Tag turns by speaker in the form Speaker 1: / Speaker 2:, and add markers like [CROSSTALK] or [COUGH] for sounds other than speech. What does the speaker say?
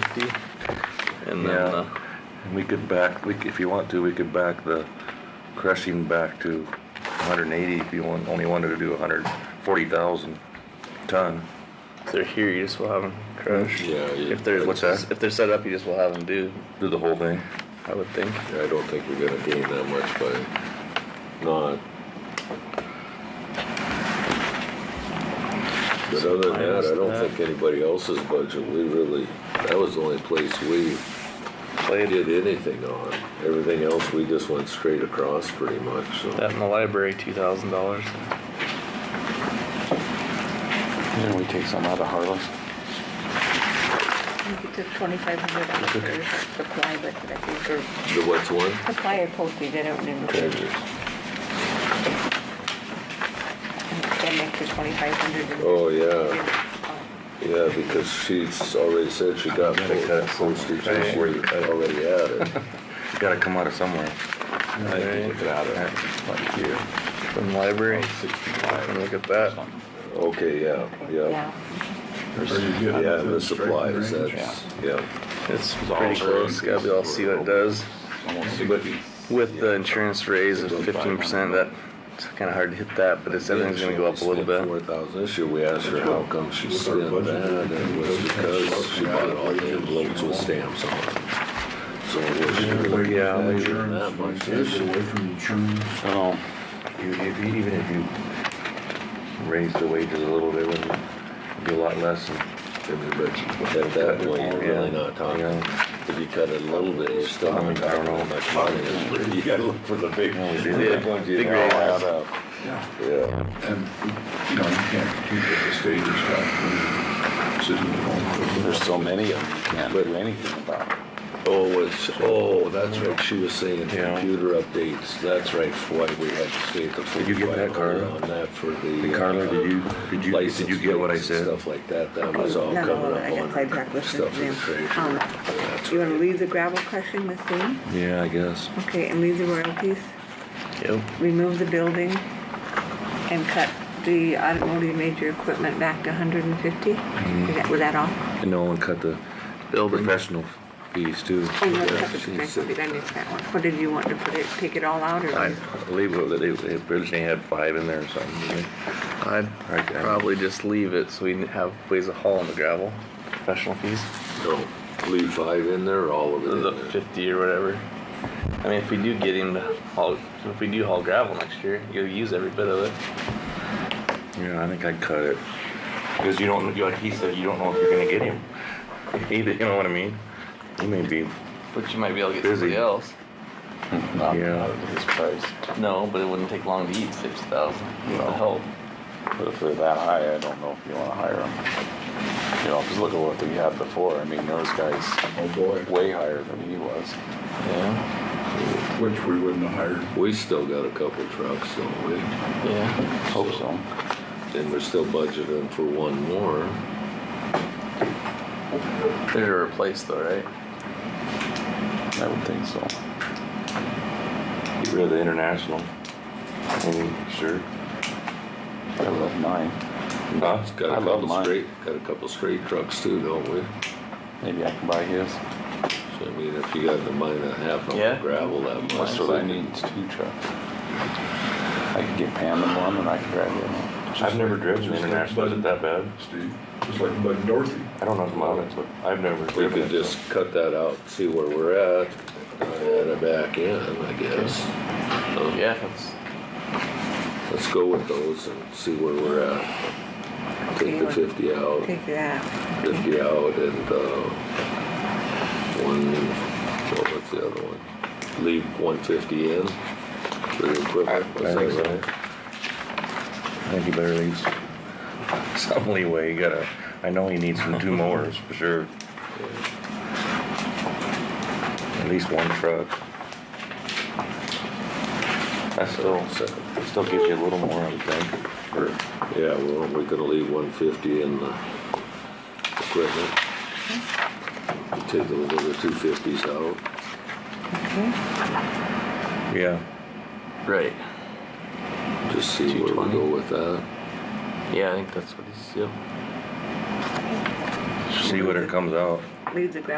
Speaker 1: fifty, and then,
Speaker 2: Yeah,
Speaker 1: uh,
Speaker 2: and we could back, we, c- if you want to, we could back the crushing back to 180 if you want, only wanted to do 140,000 ton.
Speaker 1: if they're here, you just will have them crush.
Speaker 3: Yeah, you-
Speaker 1: If they're,
Speaker 2: What's that?
Speaker 1: if they're set up, you just will have them do,
Speaker 2: Do the whole thing.
Speaker 1: I would think.
Speaker 3: Yeah, I don't think we're gonna gain that much by not. But other than that, I don't think anybody else's budget, we really, that was the only place we
Speaker 1: Played
Speaker 3: did anything on. Everything else, we just went straight across pretty much, so.
Speaker 1: that in the library, two thousand dollars.
Speaker 4: Didn't we take some out of Harless?
Speaker 5: You took twenty-five hundred out of the supply, but I think, or
Speaker 3: The what's one?
Speaker 5: supply or poultry, they don't remember. Then extra twenty-five hundred.
Speaker 3: Oh, yeah, yeah, because she's already said she got
Speaker 2: You gotta cut
Speaker 3: postage,
Speaker 2: postage.
Speaker 3: and she already had it.
Speaker 2: [LAUGHS] It's gotta come out of somewhere.
Speaker 4: I think we took it out of Harless, like here.
Speaker 1: From the library, and look at that.
Speaker 3: Okay, yeah, yeah.
Speaker 5: Yeah,
Speaker 3: Yeah, the supplies, that's, yeah.
Speaker 1: It's pretty close, gotta be all see what it does.
Speaker 4: Almost
Speaker 3: But-
Speaker 4: sixty.
Speaker 1: With the insurance raise of fifteen percent, that, it's kinda hard to hit that, but it's, everything's gonna go up a little
Speaker 3: Four
Speaker 1: bit.
Speaker 3: thousand, this year we asked her how come she spent that, and it was because she bought all the envelopes with stamps on them. So it was really
Speaker 1: Yeah,
Speaker 3: not
Speaker 1: maybe
Speaker 3: that much this year.
Speaker 6: away from insurance.
Speaker 4: Oh,
Speaker 2: Even if you, even if you raised the wages a little bit, wouldn't it be a lot less? than-
Speaker 3: And but at that point, you're really not talking, if you cut it a little bit, you're still
Speaker 2: I mean,
Speaker 3: not
Speaker 2: I don't
Speaker 3: talking
Speaker 2: know.
Speaker 3: that much money. It's- [LAUGHS] You gotta look for the big.
Speaker 2: No, we didn't.
Speaker 3: big ones you
Speaker 1: Big
Speaker 3: know,
Speaker 1: raises.
Speaker 3: add up.
Speaker 6: Yeah.
Speaker 3: Yeah.
Speaker 6: And, you know, you can't compete with the state or stuff, sitting at home.
Speaker 4: there's so many of them, you can't do anything about it.
Speaker 3: Oh, it's, oh, that's what she was saying,
Speaker 2: Yeah.
Speaker 3: computer updates, that's right, why we had to stay at the full.
Speaker 2: Did you get that, Carla?
Speaker 3: On that for
Speaker 2: Hey,
Speaker 3: the.
Speaker 2: Carla,
Speaker 3: uh,
Speaker 2: did you, did you, did you
Speaker 3: license
Speaker 2: get what I
Speaker 3: plates and
Speaker 2: said?
Speaker 3: Stuff like that, that was all
Speaker 5: No,
Speaker 3: coming up on.
Speaker 5: I got sidetracked listening
Speaker 3: stuff
Speaker 5: to them.
Speaker 3: with treasure.
Speaker 5: Um,
Speaker 3: That's
Speaker 5: you wanna
Speaker 3: right.
Speaker 5: leave the gravel crushing the same?
Speaker 2: Yeah, I guess.
Speaker 5: Okay, and leave the royalties,
Speaker 1: Yep.
Speaker 5: remove the building, and cut the automotive major equipment back to hundred and fifty? Is that, was that all?
Speaker 2: And no one cut the
Speaker 1: Building.
Speaker 2: professional fees too.
Speaker 5: Oh, you cut the
Speaker 2: She
Speaker 5: professional,
Speaker 2: said-
Speaker 5: did I miss that one? What did you want to put it, take it all out, or?
Speaker 2: I believe that they, they originally had five in there or something. didn't
Speaker 1: I'd
Speaker 2: Alright, guys.
Speaker 1: probably just leave it so we have ways of hauling the gravel, professional fees,
Speaker 3: No, leave five in there, all of it in
Speaker 1: the
Speaker 3: there.
Speaker 1: fifty or whatever. I mean, if we do get him to haul, if we do haul gravel next year, you'll use every bit of it.
Speaker 2: they? Yeah, I think I'd cut it. Cause you don't, like he said, you don't know if you're gonna get him. [LAUGHS] Either, you know what I mean? He may be,
Speaker 1: But you might be able to get
Speaker 2: Busy.
Speaker 1: somebody else.
Speaker 4: Not-
Speaker 2: Yeah.
Speaker 4: not at this price.
Speaker 1: No, but it wouldn't take long to eat six thousand.
Speaker 4: No.
Speaker 1: The help.
Speaker 4: But if they're that high, I don't know if you wanna hire them. You know, just look at what we had before, I mean, those guys
Speaker 6: Oh, boy,
Speaker 4: way higher than he was.
Speaker 1: Yeah.
Speaker 6: which we wouldn't have hired.
Speaker 3: We still got a couple trucks, don't we?
Speaker 1: Yeah.
Speaker 4: Hope so.
Speaker 3: And we're still budgeting for one more.
Speaker 1: They're to replace though, right?
Speaker 4: I would think so.
Speaker 2: get rid of the international. Maybe, sure.
Speaker 4: I love mine.
Speaker 2: Huh?
Speaker 3: Got
Speaker 4: I
Speaker 3: a
Speaker 4: love
Speaker 3: couple
Speaker 4: mine.
Speaker 3: straight, got a couple straight trucks too, don't we?
Speaker 4: Maybe I can buy his.
Speaker 3: So I mean, if you got to mine a half
Speaker 1: Yeah.
Speaker 3: of gravel that much.
Speaker 4: That's what I need, is two trucks. I could get Pam in one and I could drive the other one.
Speaker 2: I've never driven the international, is it that bad?
Speaker 6: Steve, just like Bud and Dorothy.
Speaker 2: I don't know if mine is, but I've never
Speaker 3: We
Speaker 2: driven
Speaker 3: could
Speaker 2: it. so.
Speaker 3: just cut that out, see where we're at, and add it back in, I guess. Um,
Speaker 1: Yeah, that's
Speaker 3: Let's go with those and see where we're at. Take the
Speaker 5: Okay.
Speaker 3: fifty out,
Speaker 5: Take that,
Speaker 3: fifty out and, uh, one, what was the other one? Leave one fifty in for the equipment.
Speaker 2: I think
Speaker 3: was that
Speaker 2: so.
Speaker 3: right?
Speaker 2: I think you better leave [LAUGHS] some leeway, you gotta, I know he needs some two mowers, for sure. At least one truck. That still,
Speaker 3: So,
Speaker 2: still gives you a little more, I would think, or,
Speaker 3: Yeah, well, we're gonna leave one fifty in the equipment. Take the other two fifties out.
Speaker 2: yeah.
Speaker 1: right.
Speaker 3: Just see where we go with that.
Speaker 1: Yeah, I think that's what he's yep.
Speaker 2: See what it comes out.
Speaker 5: leave the gravel